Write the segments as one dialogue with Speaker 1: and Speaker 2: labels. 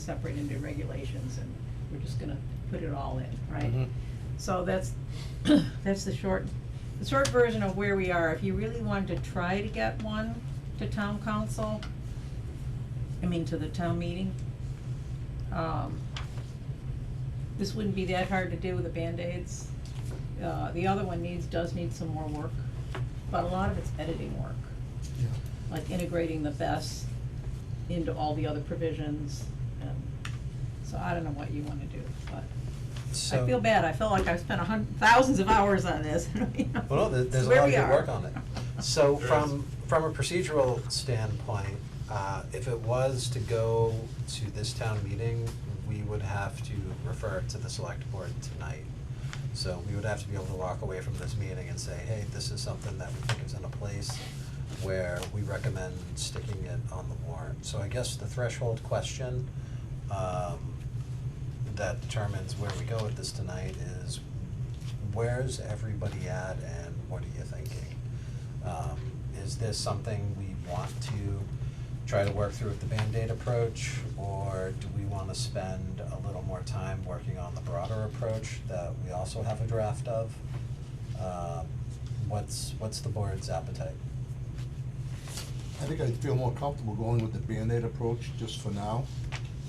Speaker 1: separate into regulations and we're just gonna put it all in, right?
Speaker 2: Mhm.
Speaker 1: So that's, that's the short, the short version of where we are. If you really wanted to try to get one to town council, I mean, to the town meeting, um, this wouldn't be that hard to do with the Band-Aids. Uh, the other one needs, does need some more work, but a lot of it's editing work.
Speaker 2: Yeah,
Speaker 1: like integrating the best into all the other provisions and, so I don't know what you wanna do, but I
Speaker 2: So-
Speaker 1: feel bad, I feel like I've spent a hun- thousands of hours on this.
Speaker 2: Well, no, there- there's a
Speaker 1: Where
Speaker 2: lot of
Speaker 1: we
Speaker 2: good
Speaker 1: are.
Speaker 2: work on it. So
Speaker 3: There is.
Speaker 2: from, from a procedural standpoint, uh, if it was to go to this town meeting, we would have to refer it to the select board tonight. So we would have to be able to walk away from this meeting and say, hey, this is something that we think is in a place where we recommend sticking it on the warrant. So I guess the threshold question, um, that determines where we go with this tonight is where's everybody at and what are you thinking? Um, is this something we want to try to work through with the Band-Aid approach? Or do we wanna spend a little more time working on the broader approach that we also have a draft of? Um, what's, what's the board's appetite?
Speaker 4: I think I'd feel more comfortable going with the Band-Aid approach just for now.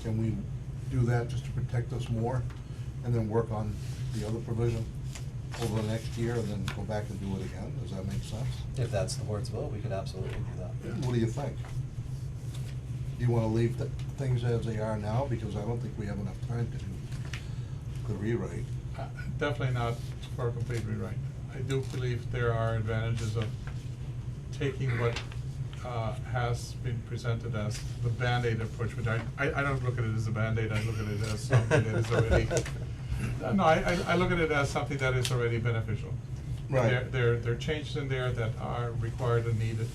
Speaker 4: Can we do that just to protect us more and then work on the other provision over the next year and then go back and do it again? Does that make sense?
Speaker 2: If that's the board's will, we could absolutely do that.
Speaker 4: What do you think? Do you wanna leave the things as they are now? Because I don't think we have enough time to do the rewrite.
Speaker 3: Uh, Definitely not for a complete rewrite. I do believe there are advantages of taking what uh, has been presented as the Band-Aid approach, which I, I I don't look at it as a Band-Aid, I look at it as something that is already, Uh, no, I, I- I look at it as something that is already beneficial.
Speaker 4: Right.
Speaker 3: There, there, there are changes in there that are required and needed,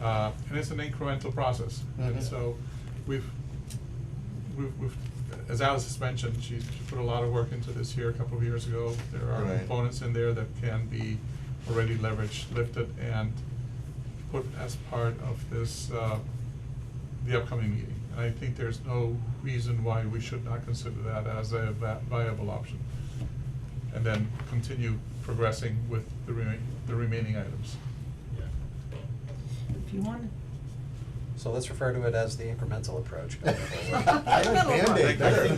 Speaker 3: uh, and it's an incremental process. And
Speaker 4: Mhm.
Speaker 3: so, we've, we've, we've, as Alice has mentioned, she, she put a lot of work into this here a couple of years ago. There are
Speaker 4: Right.
Speaker 3: components in there that can be already leveraged, lifted, and put as part of this, uh, the upcoming meeting. And I think there's no reason why we should not consider that as a va- viable option. And then continue progressing with the remain, the remaining items.
Speaker 1: If you want,
Speaker 2: So let's refer to it as the incremental approach. going forward.
Speaker 5: I like Band-Aid
Speaker 2: I
Speaker 5: better.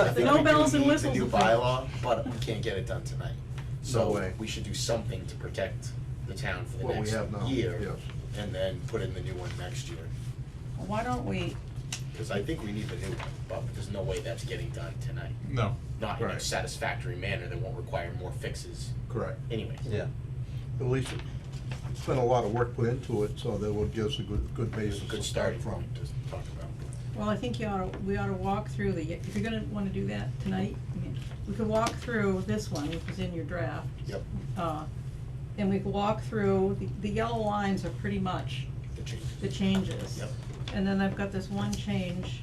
Speaker 5: I
Speaker 2: think
Speaker 5: think
Speaker 2: no
Speaker 5: we do
Speaker 1: bells and
Speaker 5: need the
Speaker 1: whistles
Speaker 5: new
Speaker 1: approach.
Speaker 5: bylaw, but we can't get it done tonight.
Speaker 4: No
Speaker 5: So
Speaker 4: way.
Speaker 5: we should do something to protect the town for the
Speaker 4: What we
Speaker 5: next
Speaker 4: have now,
Speaker 5: year,
Speaker 4: yes.
Speaker 5: and then put in the new one next year.
Speaker 1: why don't we,
Speaker 5: Cause I think we need the new one, but there's no way that's getting done tonight,
Speaker 3: No.
Speaker 5: not in a
Speaker 4: Right.
Speaker 5: satisfactory manner that won't require more fixes
Speaker 4: Correct.
Speaker 5: anyways.
Speaker 2: Yeah.
Speaker 4: At least it's been a lot of work put into it, so that would give us a good, good basis to
Speaker 5: Good
Speaker 4: start
Speaker 5: starting
Speaker 4: from.
Speaker 5: point to talk about.
Speaker 1: well, I think you oughta, we oughta walk through the, if you're gonna wanna do that tonight, I mean, we could walk through this one, which is in your draft.
Speaker 5: Yep,
Speaker 1: Uh, and we could walk through, the, the yellow lines are pretty much
Speaker 5: the changes.
Speaker 1: the changes.
Speaker 5: Yep.
Speaker 1: And then I've got this one change.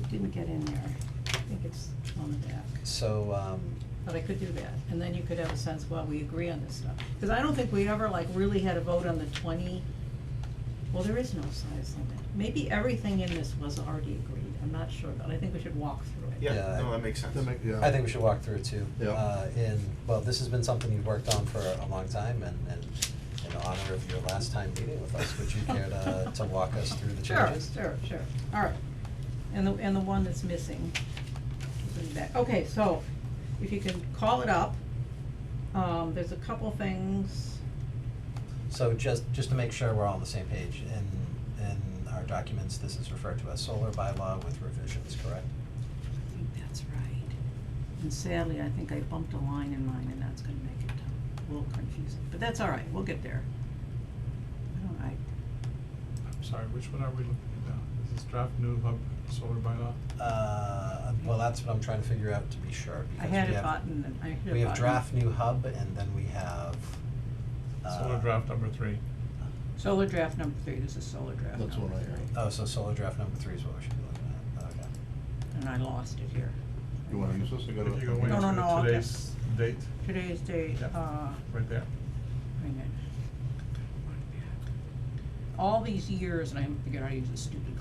Speaker 1: It didn't get in there. I think it's on the back,
Speaker 2: So, um,
Speaker 1: but I could do that. And then you could have a sense, well, we agree on this stuff. Cause I don't think we ever like really had a vote on the twenty, well, there is no size limit. Maybe everything in this was already agreed. I'm not sure, but I think we should walk through it.
Speaker 2: Yeah,
Speaker 5: Yeah,
Speaker 2: I-
Speaker 5: no, that makes sense.
Speaker 4: That make- yeah.
Speaker 2: I think we should walk through it too.
Speaker 4: Yeah.
Speaker 2: Uh, in, well, this has been something you've worked on for a long time and, and in honor of your last time meeting with us, would you care to, to walk us through the changes?
Speaker 1: Sure, sure, sure, all right. And the, and the one that's missing. is in the back. Okay, so if you can call it up, um, there's a couple things,
Speaker 2: So just, just to make sure we're all on the same page, in, in our documents, this is referred to as solar bylaw with revisions, correct?
Speaker 1: I think that's right. And sadly, I think I bumped a line in mine and that's gonna make it a little confusing, but that's all right, we'll get there. I don't, I,
Speaker 3: I'm sorry, which one are we looking at now? Is this draft new hub solar bylaw?
Speaker 2: Uh, well, that's what I'm trying to figure out to be sure,
Speaker 1: I
Speaker 2: because we
Speaker 1: had a
Speaker 2: have-
Speaker 1: button and I hit a button.
Speaker 2: We have draft new hub and then we have, uh.
Speaker 3: Solar draft number three.
Speaker 1: Solar draft number three, this is solar draft number
Speaker 4: That's
Speaker 1: three.
Speaker 4: what I heard.
Speaker 2: Oh, so solar draft number three is what we should be looking at, okay.
Speaker 1: And I lost it here.
Speaker 4: You wanna use this? I got it.
Speaker 3: If you go
Speaker 1: No, no, no, I'll
Speaker 3: into
Speaker 1: get-
Speaker 3: today's date,
Speaker 1: Today's date,
Speaker 3: Yeah.
Speaker 1: uh,
Speaker 3: right there.
Speaker 1: Hang on. All these years, and I haven't figured out how to use this stupid